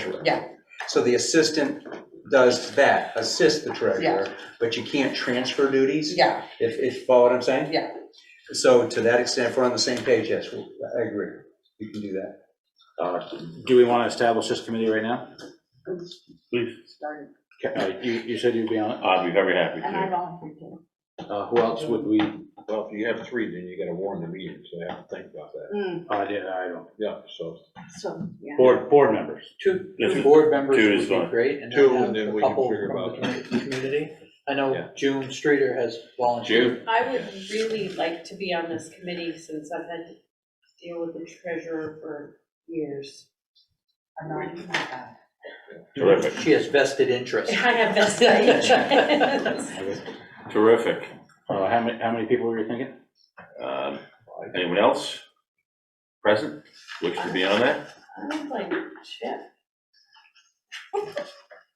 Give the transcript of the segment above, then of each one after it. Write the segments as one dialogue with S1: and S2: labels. S1: treasurer.
S2: Yeah.
S1: So the assistant does that, assist the treasurer, but you can't transfer duties,
S2: Yeah,
S1: if, if you follow what I'm saying?
S2: Yeah.
S1: So to that extent, if we're on the same page, yes, we- I agree, you can do that.
S3: Uh,
S4: Do we want to establish this committee right now?
S3: Please,
S4: Ca- uh, You, you said you'd be on it.
S3: I'd be very happy
S5: And I
S3: to.
S5: volunteer too.
S4: Uh, Who else would we,
S3: Well, if you have three, then you gotta warn the meeting, so I have to think about that.
S5: Mm,
S4: I did, I don't.
S3: Yeah, so.
S5: So, yeah.
S4: Board, board members.
S6: Two,
S3: Yes,
S6: two board members
S3: two
S6: would
S3: is
S6: be
S3: fine.
S6: great, and
S3: Two,
S6: then
S3: and then
S6: have a
S3: we can
S6: couple
S3: figure
S6: from
S3: about
S6: the community. I
S3: Yeah.
S6: know June Streeter has volunteered.
S3: June,
S7: I would really like to be on this committee since I've had to deal with the treasurer for years.
S2: I'm not even like that.
S3: terrific,
S6: She has vested interest.
S7: I have vested interest.
S3: terrific.
S4: Uh, How many, how many people were you thinking?
S3: Um, Anyone else present wish to be on that?
S7: I'm like, shit.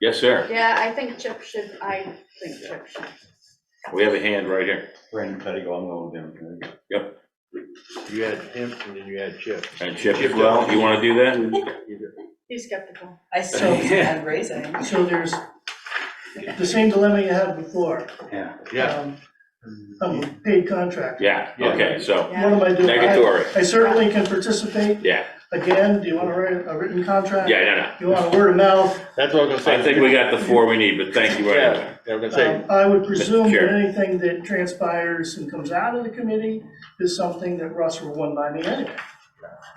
S3: Yes, sir.
S5: Yeah, I think Chip should, I think Chip should.
S3: We have a hand right here.
S8: Brandon Pettigo, I'm going down.
S3: Yep.
S8: You had him and then you had Chip.
S3: And Chip as well, you want to do that?
S5: He's skeptical.
S2: I still am raising.
S9: So there's the same dilemma you had before.
S4: Yeah.
S8: Yeah.
S9: Um, I'm a paid contractor.
S3: Yeah, okay, so
S9: What am I doing? I-
S3: negatory,
S9: I certainly can participate.
S3: yeah,
S9: Again, do you want to write a written contract?
S3: yeah, no, no.
S9: You want a word of mouth?
S8: That's what I was gonna say.
S3: I think we got the four we need, but thank you anyway.
S8: Yeah, I was gonna say,
S5: Uh-huh.
S9: Um, I would presume that
S3: Chair.
S9: anything that transpires and comes out of the committee is something that Russ will run by me anyway. um,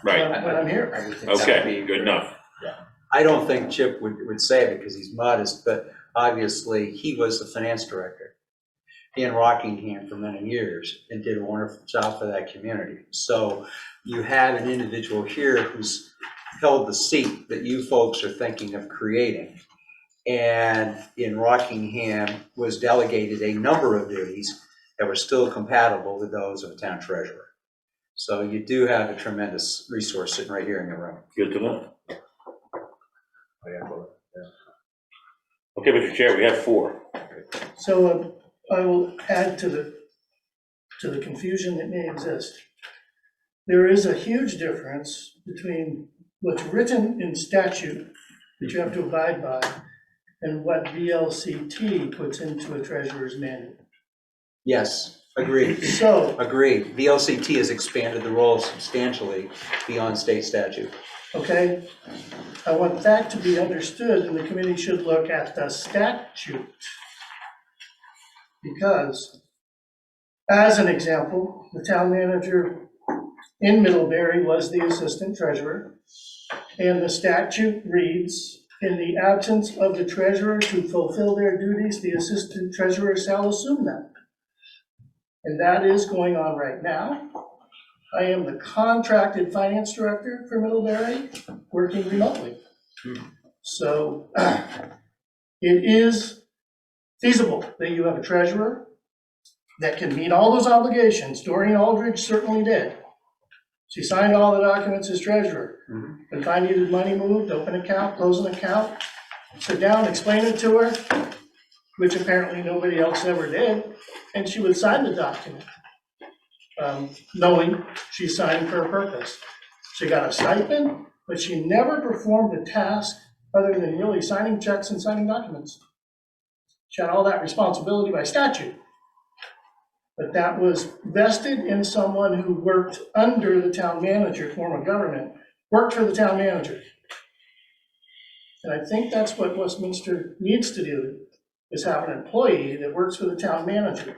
S3: Right,
S9: When when I'm here.
S3: okay, good enough.
S1: I don't think Chip would, would say it because he's modest, but obviously, he was the finance director in Rockingham for many years and did a wonderful job for that community. So you have an individual here who's held the seat that you folks are thinking of creating. And in Rockingham was delegated a number of duties that were still compatible with those of a town treasurer. So you do have a tremendous resource sitting right here in the room.
S3: Good to know.
S8: I got both.
S3: Okay, Mr. Chair, we have four.
S9: So uh, I will add to the, to the confusion that may exist. There is a huge difference between what's written in statute that you have to abide by and what VLCT puts into a treasurer's manual.
S1: Yes, agreed.
S9: So,
S1: Agreed. VLCT has expanded the role substantially beyond state statute.
S9: okay, I want that to be understood and the committee should look at the statute. Because, as an example, the town manager in Middlebury was the assistant treasurer. And the statute reads, in the absence of the treasurer to fulfill their duties, the assistant treasurer shall assume them. And that is going on right now. I am the contracted finance director for Middlebury, working remotely. So it is feasible that you have a treasurer that can meet all those obligations. Doreen Aldridge certainly did. She signed all the documents as treasurer.
S1: Mhm.
S9: If I needed money moved, open account, close an account, sit down, explain it to her, which apparently nobody else ever did, and she would sign the document, um, knowing she signed for a purpose. She got a stipend, but she never performed a task other than merely signing checks and signing documents. She had all that responsibility by statute. But that was vested in someone who worked under the town manager, form of government, worked for the town manager. And I think that's what Westminster needs to do, is have an employee that works for the town manager.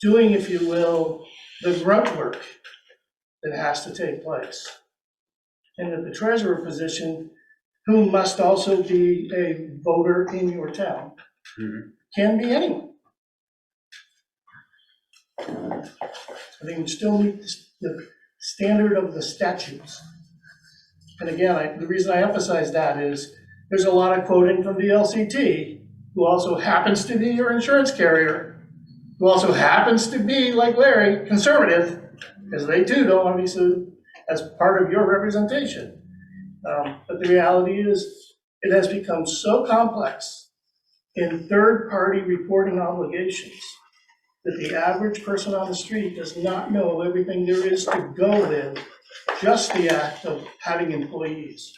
S9: Doing, if you will, the grunt work that has to take place. And that the treasurer position, who must also be a voter in your town,
S1: Mhm.
S9: can be anyone. I think we still meet the standard of the statutes. And again, I, the reason I emphasize that is, there's a lot of quoting from the LCT, who also happens to be your insurance carrier, who also happens to be, like Larry, conservative, because they too don't want to be sued as part of your representation. Um, But the reality is, it has become so complex in third-party reporting obligations that the average person on the street does not know everything there is to go with just the act of having employees.